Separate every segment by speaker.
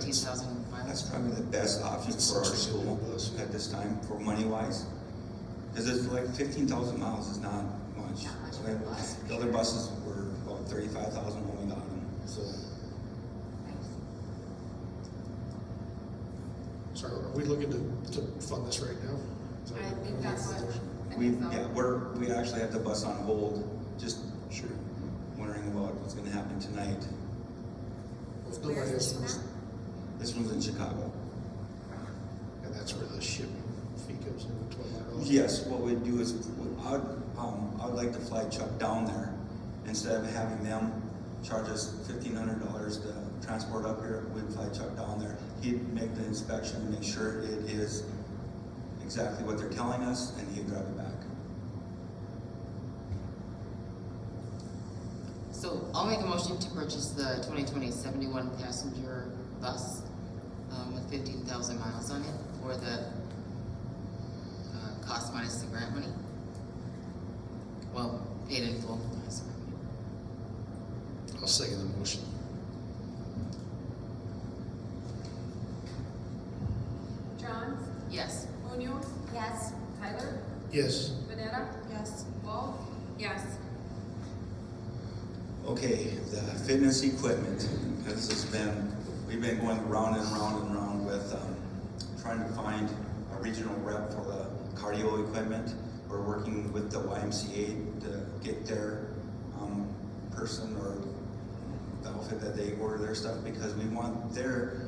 Speaker 1: six thousand in the
Speaker 2: That's
Speaker 1: finance?
Speaker 2: probably the best option for our school at this time, for money-wise. Because it's like fifteen thousand miles is not much.
Speaker 1: Not much for a bus.
Speaker 2: The other buses were about thirty-five thousand when we got them, so.
Speaker 3: So are we looking to, to fund this right now? Is that-
Speaker 4: I think that's what. I
Speaker 2: We,
Speaker 4: think so.
Speaker 2: yeah, we're, we actually have the bus on hold, just sure, wondering about what's gonna happen tonight.
Speaker 3: Well, if nobody
Speaker 4: Where's
Speaker 3: else
Speaker 4: this
Speaker 3: wants-
Speaker 2: This one's in Chicago.
Speaker 3: And that's where the shipping fee comes in, twelve hundred dollars?
Speaker 2: Yes, what we'd do is, I'd, um, I'd like to fly Chuck down there, instead of having them charge us fifteen hundred dollars to transport up here, we'd fly Chuck down there. He'd make the inspection, make sure it is exactly what they're telling us, and he'd drive it back.
Speaker 1: So I'll make a motion to purchase the 2020 71 passenger bus, um, with fifteen thousand miles on it for the, uh, cost minus the grant money. Well, paid in full, minus the grant money.
Speaker 3: I'll second the motion.
Speaker 4: Johns,
Speaker 1: Yes,
Speaker 4: Munoz. Yes. Tyler,
Speaker 3: Yes,
Speaker 4: Banetta. Yes. Wolf, yes.
Speaker 2: Okay, the fitness equipment, this has been, we've been going round and round and round with, um, trying to find a regional rep for the cardio equipment. We're working with the YMCA to get their, um, person or the outfit that they order their stuff because we want their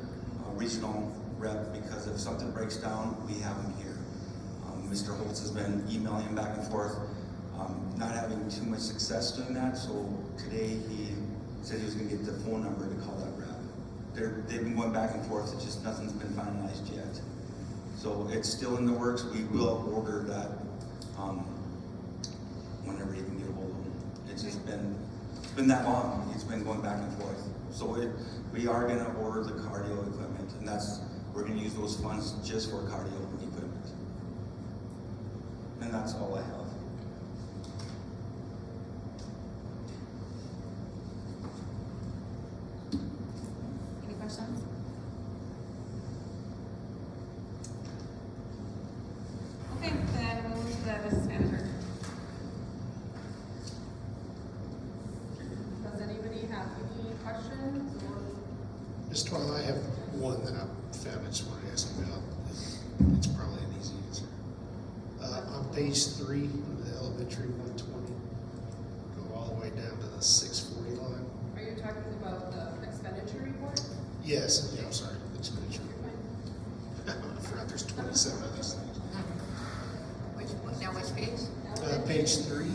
Speaker 2: uh, regional rep, because if something breaks down, we have them here. Um, Mr. Holtz has been emailing back and forth, um, not having too much success doing that, so today he said he was gonna get the phone number to call that rep. They're, they've been going back and forth, it's just nothing's been finalized yet. So it's still in the works, we will order that, um, whenever you can get ahold of him. It's just been, it's been that long, it's been going back and forth. So it, we are gonna order the cardio equipment, and that's, we're gonna use those funds just for cardio equipment. And that's all I have.
Speaker 4: Any questions? Okay, then we'll move to the business manager. Does anybody have any questions or?
Speaker 3: Ms. Twile, I have one that I found I just wanted to ask about. It's probably an easy answer. Uh, on page three of the elementary one twenty, go all the way down to the six forty line.
Speaker 4: Are you talking about the expenditure report?
Speaker 3: Yes, yeah, I'm sorry, expenditure.
Speaker 4: You're fine.
Speaker 3: I forgot there's twenty-seven of these things.
Speaker 4: Which, now which page?
Speaker 3: Uh, page three.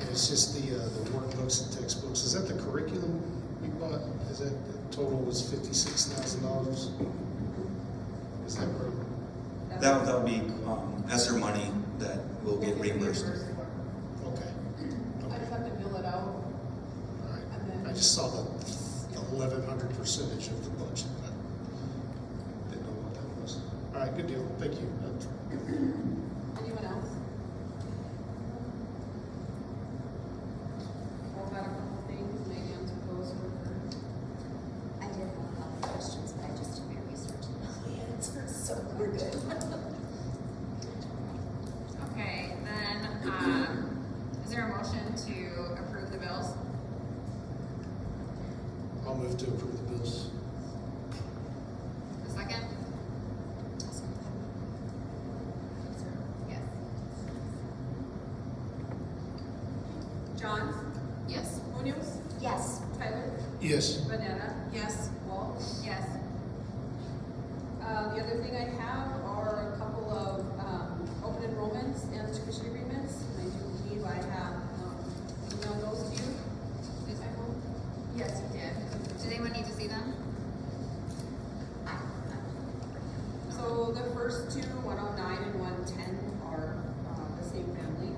Speaker 3: And it's just the, uh, the workbooks and textbooks. Is that the curriculum we bought? Is that, the total was fifty-six thousand dollars? Is that right?
Speaker 2: That, that'll be, um, ESSER money that will get reimbursed.
Speaker 3: Okay.
Speaker 5: I
Speaker 3: Okay,
Speaker 5: just have to bill it out,
Speaker 3: all
Speaker 5: and then-
Speaker 3: right. I just saw the eleven hundred percentage of the budget. I Didn't know what that was. All right, good deal. Thank you. That's-
Speaker 5: anyone else? I've got a couple things, maybe I'm supposed to work.
Speaker 6: I did have a couple of questions, but I just did my research and know the answers, so we're good.
Speaker 4: Okay, then, um, is there a motion to approve the bills?
Speaker 3: I'll move to approve the bills.
Speaker 4: A second? Yes.
Speaker 5: Johns,
Speaker 1: yes.
Speaker 5: Munoz,
Speaker 6: Yes,
Speaker 5: Tyler,
Speaker 3: Yes.
Speaker 5: Banana. Yes. Walt.
Speaker 4: Yes.
Speaker 5: Uh, the other thing I have are a couple of, um, open enrollments and tuition agreements, and I do believe I have, um, emailed those to you. Did I hope?
Speaker 4: Yes, you did. Does anyone need to see them?
Speaker 5: So the first two, one oh nine and one ten, are, uh, the same family.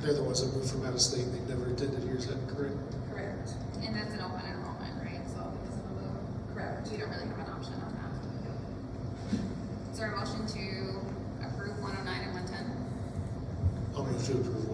Speaker 3: They're the ones that moved from out of state. They never attended here. Is that correct?
Speaker 5: Correct.
Speaker 4: And that's an open enrollment, right? So this is a little,
Speaker 5: Correct.
Speaker 4: we don't really have an option on that. Is there a motion to approve one oh nine and one ten?
Speaker 3: I'll move to approve.